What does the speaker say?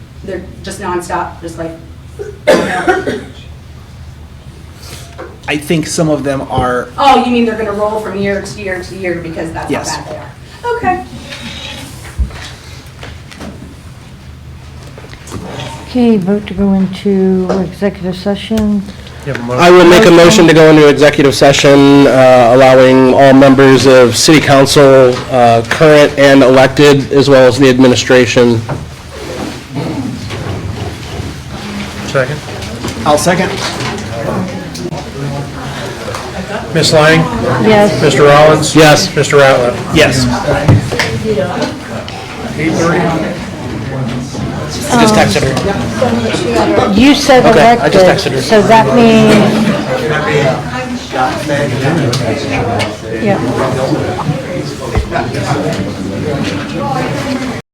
they're just nonstop, just like, I think some of them are, oh, you mean they're gonna roll from year to year to year because that's how Yes. bad they are? Okay. Okay, vote to go into executive session. You have a motion? I would make a motion to go into executive session, uh, allowing all members of city council, uh, current and elected, as well as the administration. Second. I'll second. Ms. Lang? Yes. Mr. Rollins? Yes. Mr. Ratliff? Yes. Just texted her. You said Okay, I just texted elected, her. so that means... Yeah.